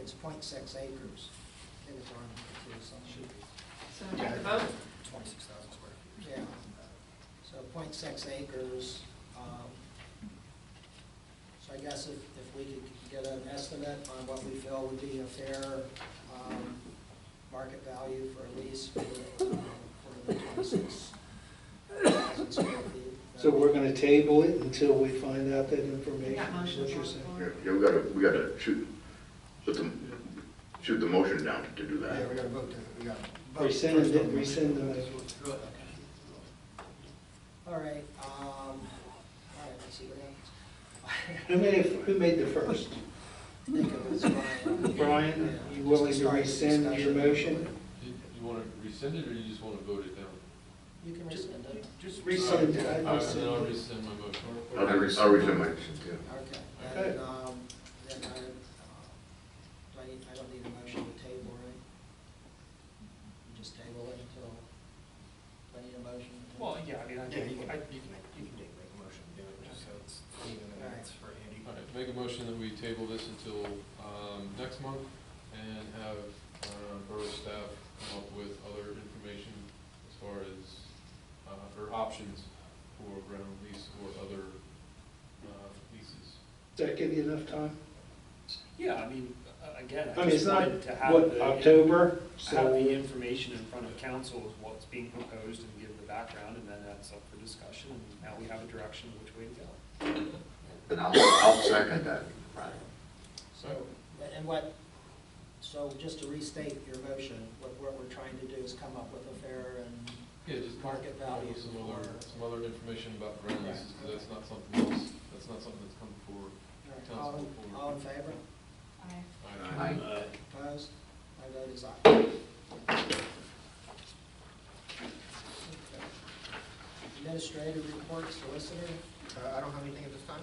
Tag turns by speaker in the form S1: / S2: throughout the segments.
S1: it's point six acres in the drawing, too, so.
S2: So take the vote.
S3: Twenty-six thousand square feet.
S1: Yeah, so 0.6 acres, um, so I guess if, if we could get an estimate on what we feel would be a fair, um, market value for a lease for, um, for the twenty-six thousand square feet.
S4: So we're gonna table it until we find out that information?
S2: We got motion
S4: is what you're
S2: on the
S4: saying?
S2: floor.
S5: Yeah, yeah, we gotta, we gotta shoot, put the, shoot the motion down to
S3: Yeah,
S5: do
S3: we
S5: that.
S3: gotta vote, to- we gotta. vote
S4: Rescind
S3: first
S4: it,
S3: on the
S4: rescind
S3: motion.
S4: the,
S1: All right, um, all right, let's see what happens.
S4: who made, it- who made the first?
S1: I think it was Brian.
S4: Brian, you willing to
S1: Start the
S4: rescind your
S1: discussion.
S4: motion?
S6: You want to rescind it, or you just want to vote it down?
S1: You can rescind it.
S3: Just
S4: Rescind,
S3: it.
S4: I
S6: All right, then I'll
S4: rescind.
S6: rescind my motion.
S5: I'll I'll rescind my,
S1: Okay,
S4: Okay.
S1: and, um, then I, uh, do I need, I don't need a motion to table, right? Just table it until, do I need a motion? to-
S3: Well, yeah, I mean, I,
S1: Yeah,
S3: think
S1: you
S3: you can,
S1: can-
S3: I- you can, you can make a motion, to do it, just so it's even, and it's for Andy.
S6: All right, make a motion that we table this until um, next month and have uh, borough staff come up with other information as far as, uh, or options for ground lease or other uh, leases.
S4: Does that give you enough time?
S7: Yeah, I mean, uh, again,
S4: I
S7: I
S4: mean, it's
S7: just
S4: not,
S7: wanted to have
S4: what,
S7: the-
S4: October,
S7: Have the
S4: so,
S7: information in front of council of what's being proposed and give the background, and then that's up for discussion, and now we have a direction which way to go.
S5: and I'll, I'll second that.
S1: So, and what, so just to restate your motion, what, what we're trying to do is come up with a fair and,
S6: Yeah, just
S1: Market value
S6: Some other,
S1: for-
S6: some other information about ground
S1: Right.
S6: leases, because that's not something else, that's not something that's come forward.
S1: all, in- all in favor?
S2: Aye.
S5: Aye.
S1: Opposed? My vote is aye. Administrative report, solicitor,
S3: Uh, I don't have anything at this time?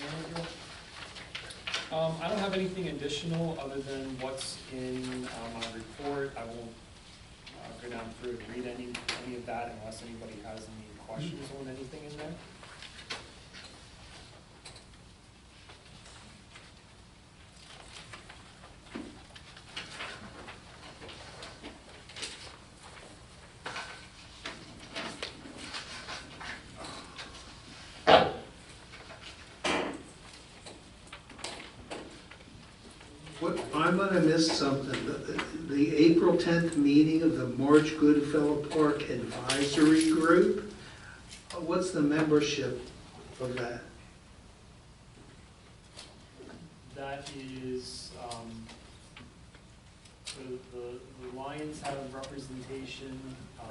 S1: manager?
S7: Um, I don't have anything additional other than what's in uh, my report. I won't uh, go down through and read any, any of that unless anybody has any questions on anything in there.
S4: what, I'm gonna miss something. The- The April tenth meeting of the March Goodfellow Park Advisory Group, what's the membership of that?
S7: That is, um, so the, the Lions have representation, um,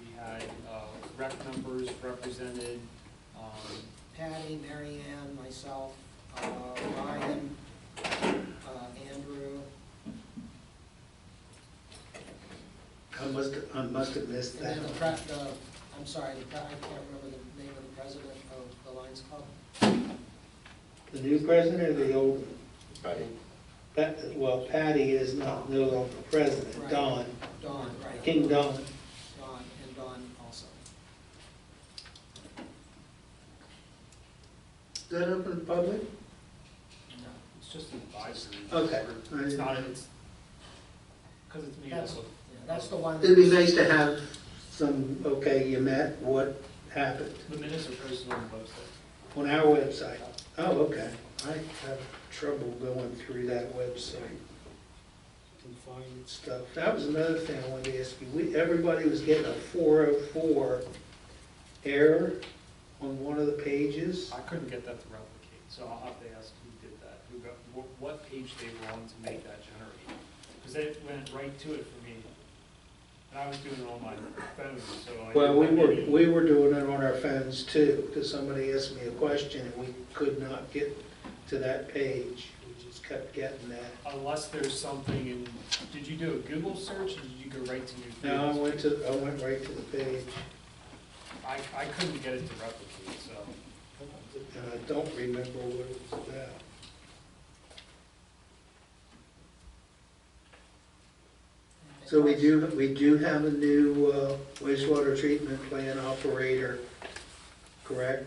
S7: we had, uh, rec members represented, um,
S1: Patty, Mary Ann, myself, uh, Ryan, uh, Andrew.
S4: I must, I must have missed
S1: And
S4: that.
S1: then the pre, the, I'm sorry, the pre- I can't remember the name of the president of the Lions Club.
S4: The new president or the old? one? Pat, well, Patty is not, no longer president,
S1: Right.
S4: Don,
S1: Dawn, right.
S4: King Don.
S1: Dawn, and Dawn also.
S4: Is that open to the public?
S1: No.
S7: it's just an advisory.
S4: Okay.
S7: It's not, it's, because it's made up
S1: That's,
S7: of.
S1: yeah, that's the one.
S4: It'd be nice to have some, okay, you met, what happened,
S7: The minutes are posted on the website.
S4: on our website. Oh, okay, I have trouble going through that website and finding stuff. That was another thing I wanted to ask you, we, everybody was getting a four oh four error on one of the pages.
S7: I couldn't get that to replicate, so I'll have to ask who did that, who got, what, what page they were on to make that generate. Because it went right to it for me, and I was doing it on my phone, so I. didn't
S4: Well, we
S7: have
S4: were,
S7: any-
S4: we were doing it on our phones too, because somebody asked me a question and we could not get to that page. We just kept getting that.
S7: Unless there's something in, did you do a Google search, or did you go right to New?
S4: No, I
S7: Freedom?
S4: went to, I went right to the page,
S7: I, I couldn't get it to replicate, so.
S4: and I don't remember what it was about. So we do, we do have a new uh, wastewater treatment plant operator, correct?